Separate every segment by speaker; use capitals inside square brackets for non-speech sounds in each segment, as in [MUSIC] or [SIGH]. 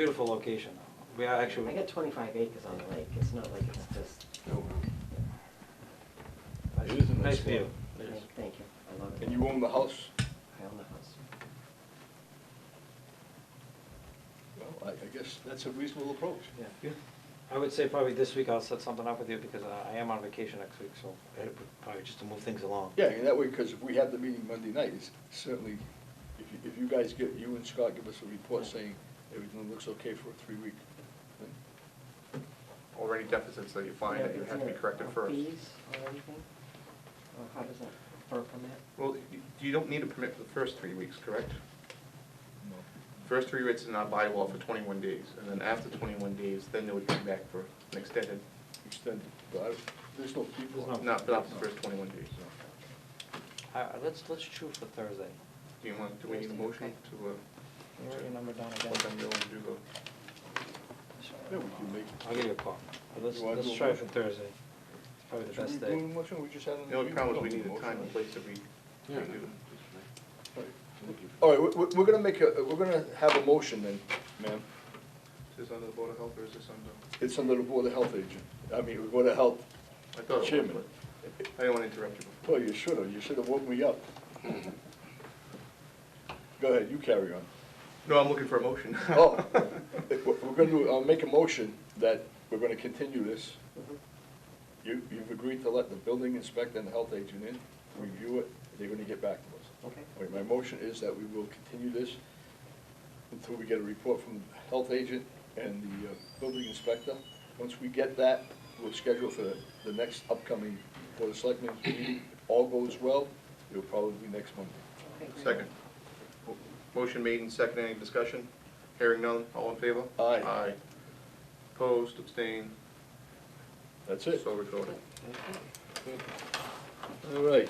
Speaker 1: Beautiful location. We are
Speaker 2: I
Speaker 1: actually,
Speaker 2: got twenty-five acres on the lake, it's not like it's just,
Speaker 3: It is a nice
Speaker 1: nice view.
Speaker 3: spot.
Speaker 1: It is.
Speaker 2: thank- thank you, I love it.
Speaker 3: And you own the house?
Speaker 2: I own the house.
Speaker 3: Well, I, I guess that's a reasonable approach.
Speaker 1: Yeah. I would say probably this week I'll set something up with you because uh, I am on vacation next week, so I had to probably just to move things along.
Speaker 3: Yeah, and that way, because if we have the meeting Monday night, it's certainly, if you, if you guys get, you and Scott give us a report saying everything looks okay for a three-week thing.
Speaker 4: already deficits that you find that you have to be corrected first.
Speaker 2: Fees or anything? Or how does that, for a permit?
Speaker 4: Well, you- you don't need a permit for the first three weeks, correct? First three weeks in our bylaw for twenty-one days, and then after twenty-one days, then they would come back for an extended,
Speaker 3: Extended, but I- there's no people.
Speaker 1: There's
Speaker 4: not for the first twenty-one days.
Speaker 1: All right, Uh, let's, let's shoot for Thursday.
Speaker 4: Do you want, do we need a motion to, uh,
Speaker 1: You wrote your number down again.
Speaker 4: what time you want to do the,
Speaker 3: Yeah, we can make.
Speaker 1: I'll give you a call. But Let's,
Speaker 3: You want
Speaker 1: let's
Speaker 3: to do a
Speaker 1: try for
Speaker 3: motion?
Speaker 1: Thursday. It's probably the
Speaker 3: Should we
Speaker 1: best
Speaker 3: do
Speaker 1: day.
Speaker 3: a motion? We just had an-
Speaker 4: the only problem is we need
Speaker 3: No,
Speaker 4: a time and
Speaker 3: motion.
Speaker 4: place that we, we do.
Speaker 3: All right, we- we- we're gonna make a, we're gonna have a motion then, ma'am.
Speaker 4: Is this under the Board of Health or is this under,
Speaker 3: It's under the Board of Health agent, I mean, Board of Health
Speaker 4: I thought it
Speaker 3: Chairman.
Speaker 4: was, but I didn't want to interrupt you
Speaker 3: Well, you should have, you should have woke me up. Go ahead, you carry on.
Speaker 4: No, I'm looking for a motion. [LAUGHS]
Speaker 3: Oh, if we're we're gonna, do- I'll make a motion that we're gonna continue this.
Speaker 2: Mm-hmm.
Speaker 3: You, you've agreed to let the building inspector and the health agent in, review it, they're gonna get back to us.
Speaker 2: Okay.
Speaker 3: All right, my motion is that we will continue this until we get a report from the health agent and the uh, building inspector. Once we get that, we'll schedule for the- the next upcoming Board of Selectmen's meeting. If all goes well, it'll probably be next Monday.
Speaker 2: Okay, great.
Speaker 4: Second. Motion made and second, any discussion? Hearing none, all in favor?
Speaker 3: Aye.
Speaker 4: Aye. Opposed, abstained,
Speaker 3: That's it.
Speaker 4: so recorded.
Speaker 3: All right.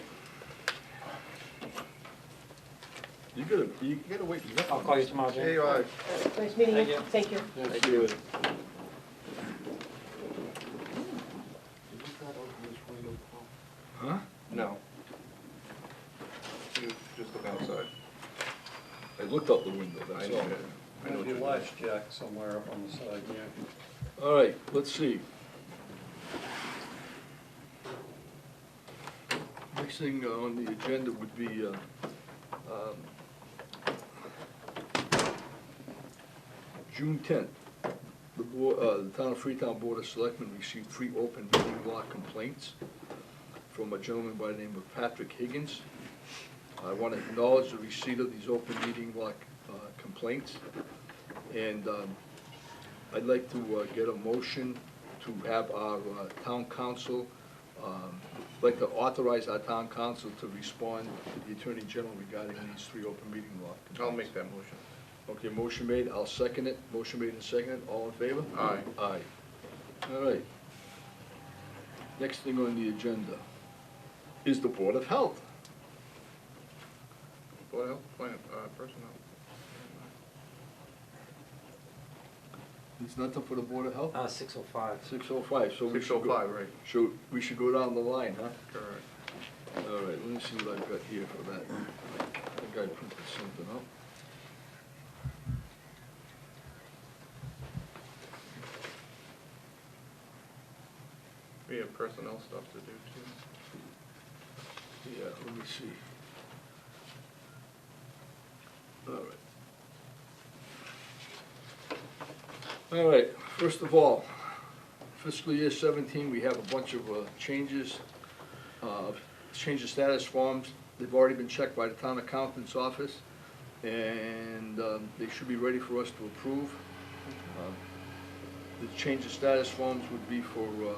Speaker 3: You gotta, you gotta wait. for that
Speaker 1: I'll
Speaker 3: one.
Speaker 1: call you tomorrow, Jim.
Speaker 4: Hey, aye.
Speaker 2: Alright, Nice meeting
Speaker 1: Thank
Speaker 2: you,
Speaker 1: you.
Speaker 2: thank you.
Speaker 3: Yeah,
Speaker 4: Thank
Speaker 3: see
Speaker 4: you.
Speaker 3: it. Huh?
Speaker 4: No. You Just look outside.
Speaker 3: I looked out the window,
Speaker 4: I
Speaker 3: that's
Speaker 4: know
Speaker 3: all.
Speaker 4: it. I know what
Speaker 5: Maybe
Speaker 4: you're
Speaker 5: your
Speaker 4: doing.
Speaker 5: lights jacked somewhere up on the side, yeah.
Speaker 3: All right, let's see. Next thing on the agenda would be, uh, um, June tenth, the board, uh, the town of Freetown Board of Selectmen received three open meeting law complaints from a gentleman by the name of Patrick Higgins. I want to acknowledge the receipt of these open meeting law, uh, complaints. And, um, I'd like to uh, get a motion to have our uh, town council, um, like to authorize our town council to respond to the Attorney General regarding these three open meeting law.
Speaker 4: I'll make that motion.
Speaker 3: Okay, motion made, I'll second it. Motion made and seconded, all in favor?
Speaker 4: Aye.
Speaker 3: Aye. All right. Next thing on the agenda is the Board of Health.
Speaker 4: Board of Health, Plan, uh, Personnel.
Speaker 3: There's nothing for the Board of Health?
Speaker 1: Uh, six oh five.
Speaker 3: Six oh five, so we
Speaker 4: Six
Speaker 3: should go.
Speaker 4: oh five, right,
Speaker 3: So we should go down the line, huh?
Speaker 4: correct.
Speaker 3: All right, let me see what I've got here for that. I think I printed something up.
Speaker 4: We have personnel stuff to do too.
Speaker 3: Yeah, let me see. All right. All right, first of all, fiscal year seventeen, we have a bunch of uh, changes, uh, change of status forms. They've already been checked by the town accountant's office, and um, they should be ready for us to approve. Uh, The change of status forms would be for uh,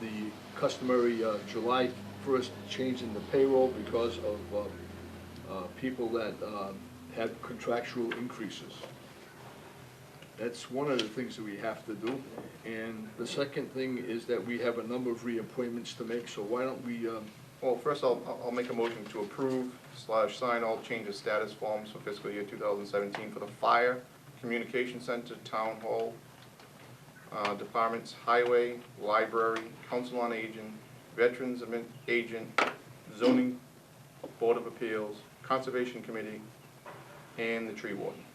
Speaker 3: the customary uh, July 1st change in the payroll because of uh, uh, people that um, had contractual increases. That's one of the things that we have to do. And the second thing is that we have a number of reappointments to make, so why don't we, um,
Speaker 4: Well, first I'll, I'll- I'll make a motion to approve slash sign all change of status forms for fiscal year two thousand seventeen for the fire, communication center, town hall, uh, departments, highway, library, council on aging, veterans admin- agent, zoning board of appeals, conservation committee, and the tree warden.